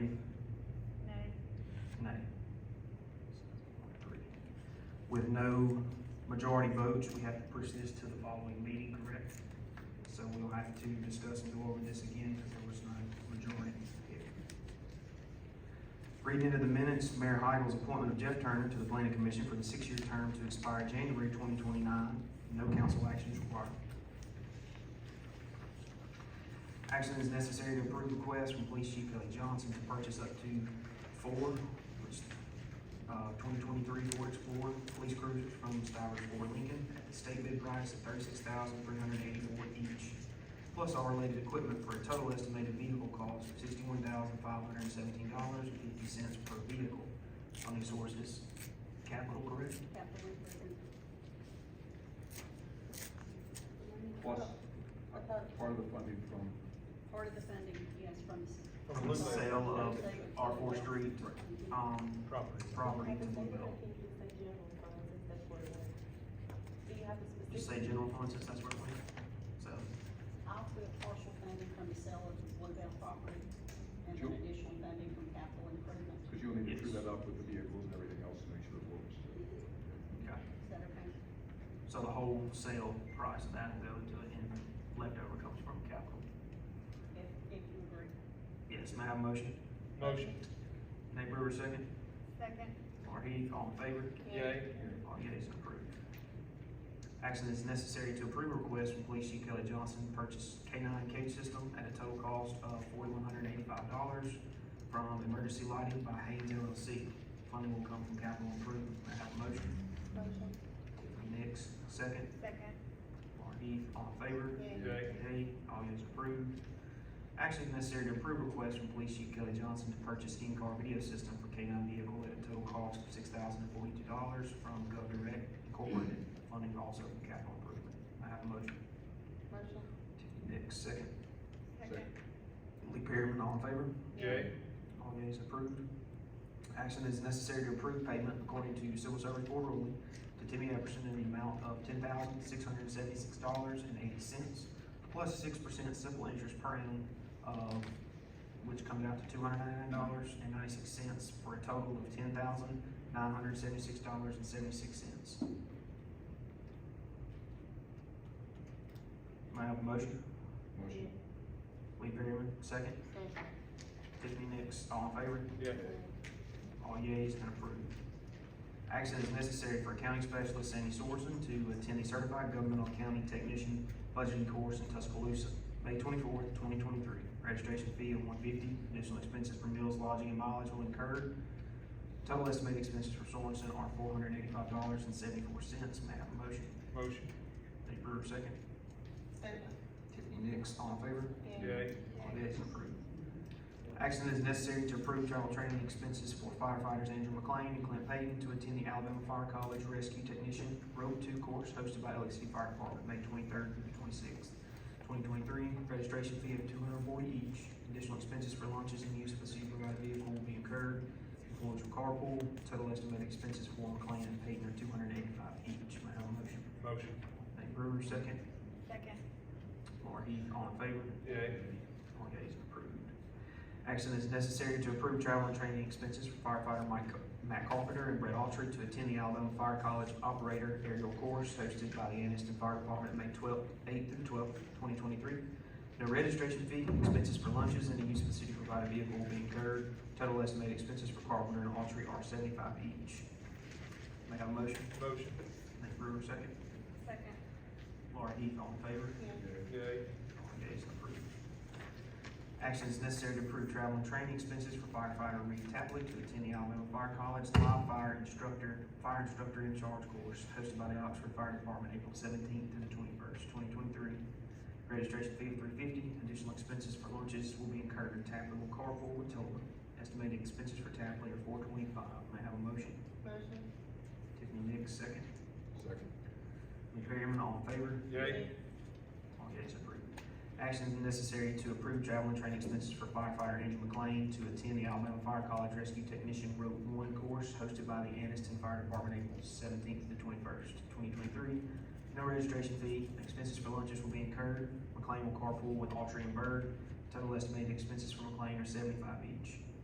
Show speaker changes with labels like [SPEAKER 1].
[SPEAKER 1] with no majority votes, we have to push this to the following meeting, correct? So we'll have to discuss and go over this again because there was no majority here. Reading into the minutes, Mayor Heigl's appointment of Jeff Turner to the planning commission for the six-year term to expire January twenty twenty-nine. No council action is required. Action is necessary to approve request from Police Chief Kelly Johnson to purchase up to four, which, uh, twenty twenty-three Ford Explorer police cruisers from Stivers Ford Lincoln at the state bid price of thirty-six thousand three hundred eighty-four each, plus all related equipment for a total estimated vehicle cost of sixty-one thousand five hundred and seventeen dollars and fifty cents per vehicle. Funding sources, capital correct?
[SPEAKER 2] Capital improvement.
[SPEAKER 3] Plus, uh,
[SPEAKER 2] About
[SPEAKER 3] part of the funding from,
[SPEAKER 2] Part of the funding, yes, from. s-
[SPEAKER 1] From the sale of our Fourth Street,
[SPEAKER 2] Mhm.
[SPEAKER 1] um,
[SPEAKER 4] Property.
[SPEAKER 1] property to Bluebell.
[SPEAKER 5] Do you have a
[SPEAKER 1] You say
[SPEAKER 5] specific?
[SPEAKER 1] general fund since that's where it went, so.
[SPEAKER 2] I'll put partial funding from the sale of the Bluebell property and then
[SPEAKER 3] Sure.
[SPEAKER 2] additional funding from capital improvement.
[SPEAKER 3] because you'll need to true
[SPEAKER 1] Yes.
[SPEAKER 3] that up with the vehicles and everything else to make sure it works.
[SPEAKER 1] Okay.
[SPEAKER 2] Is that okay?
[SPEAKER 1] So the whole sale price of that will go into it and leftover comes from capital.
[SPEAKER 2] If, if you agree.
[SPEAKER 1] Yes, may I have a motion?
[SPEAKER 4] Motion.
[SPEAKER 1] Nate Brewer, second.
[SPEAKER 2] Second.
[SPEAKER 1] Lauren Heath, all in favor?
[SPEAKER 4] Yay.
[SPEAKER 1] All yeas approved. Action is necessary to approve a request from Police Chief Kelly Johnson to purchase K nine cage system at a total cost of forty-one hundred eighty-five dollars from Emergency Lighting by Haynes LLC. Funding will come from capital improvement. May I have a motion?
[SPEAKER 2] Motion.
[SPEAKER 1] Next, second.
[SPEAKER 2] Second.
[SPEAKER 1] Lauren Heath, all in favor?
[SPEAKER 4] Yay.
[SPEAKER 1] Yay, all is approved. Action is necessary to approve request from Police Chief Kelly Johnson to purchase in-car video system for K nine vehicle at a total cost of six thousand and forty-two dollars from GovDirect Incorporated, funding also from capital improvement. I have a motion.
[SPEAKER 2] Motion.
[SPEAKER 1] Tiffany Nix, second.
[SPEAKER 3] Second.
[SPEAKER 1] Lee Perryman, all in favor?
[SPEAKER 4] Yay.
[SPEAKER 1] All yeas approved. Action is necessary to approve payment according to civil service board ruling to Timmy Epperson in the amount of ten thousand six hundred seventy-six dollars and eighty cents, plus six percent simple interest per annum, uh, which comes out to two hundred ninety-nine dollars and ninety-six cents for a total of ten thousand nine hundred seventy-six dollars and seventy-six cents. May I have a motion?
[SPEAKER 3] Motion.
[SPEAKER 1] Lee Perryman, second. Tiffany Nix, all in favor?
[SPEAKER 4] Yay.
[SPEAKER 1] All yeas and approved. Action is necessary for County Specialist Sandy Sorensen to attend the Certified Governmental Accounting Technician Budgeting Course in Tuscaloosa, May twenty-fourth, twenty twenty-three. Registration fee of one fifty, additional expenses for meals, lodging, and mileage will incur. Total estimated expenses for Sorensen are four hundred eighty-five dollars and seventy-four cents. May I have a motion?
[SPEAKER 4] Motion.
[SPEAKER 1] Nate Brewer, second.
[SPEAKER 2] Second.
[SPEAKER 1] Tiffany Nix, all in favor?
[SPEAKER 4] Yay.
[SPEAKER 1] All yeas approved. Action is necessary to approve travel training expenses for firefighters Andrew McLean and Clint Payton to attend the Alabama Fire College Rescue Technician Road Two course hosted by LAC Fire Department, May twenty-third through the twenty-sixth, twenty twenty-three. Registration fee of two hundred and forty each. Additional expenses for lunches and use of the supervised vehicle will be incurred. Employees will carpool. Total estimated expenses for McLean and Payton are two hundred and eighty-five each. May I have a motion?
[SPEAKER 4] Motion.
[SPEAKER 1] Nate Brewer, second.
[SPEAKER 2] Second.
[SPEAKER 1] Lauren Heath, all in favor?
[SPEAKER 4] Yay.
[SPEAKER 1] All yeas approved. Action is necessary to approve travel and training expenses for firefighter Mike, Matt Carpenter and Brett Altrue to attend the Alabama Fire College Operator Aerial Course hosted by the Anniston Fire Department, May twelfth, eighth through twelfth, twenty twenty-three. No registration fee, expenses for lunches and the use of the city provided vehicle will be incurred. Total estimated expenses for Carpenter and Altrue are seventy-five each. May I have a motion?
[SPEAKER 4] Motion.
[SPEAKER 1] Nate Brewer, second.
[SPEAKER 2] Second.
[SPEAKER 1] Laura Heath, all in favor?
[SPEAKER 4] Yay.
[SPEAKER 1] All yeas approved. Action is necessary to approve travel and training expenses for firefighter Reed Tapley to attend the Alabama Fire College Live Fire Instructor, Fire Instructor in Charge course hosted by the Oxford Fire Department, April seventeenth through the twenty-first, twenty twenty-three. Registration fee of three fifty, additional expenses for lunches will be incurred. Tapley will carpool with Tola. Estimated expenses for Tapley are four twenty-five. May I have a motion?
[SPEAKER 5] Motion.
[SPEAKER 1] Tiffany Nix, second.
[SPEAKER 3] Second.
[SPEAKER 1] Lee Perryman, all in favor?
[SPEAKER 4] Yay.
[SPEAKER 1] All yeas approved. Action is necessary to approve travel and training expenses for firefighter Andrew McLean to attend the Alabama Fire College Rescue Technician Road One course hosted by the Anniston Fire Department April seventeenth to twenty-first, twenty twenty-three. No registration fee, expenses for lunches will be incurred. McLean will carpool with Autry and Bird. Total estimated expenses for McLean are seventy-five each.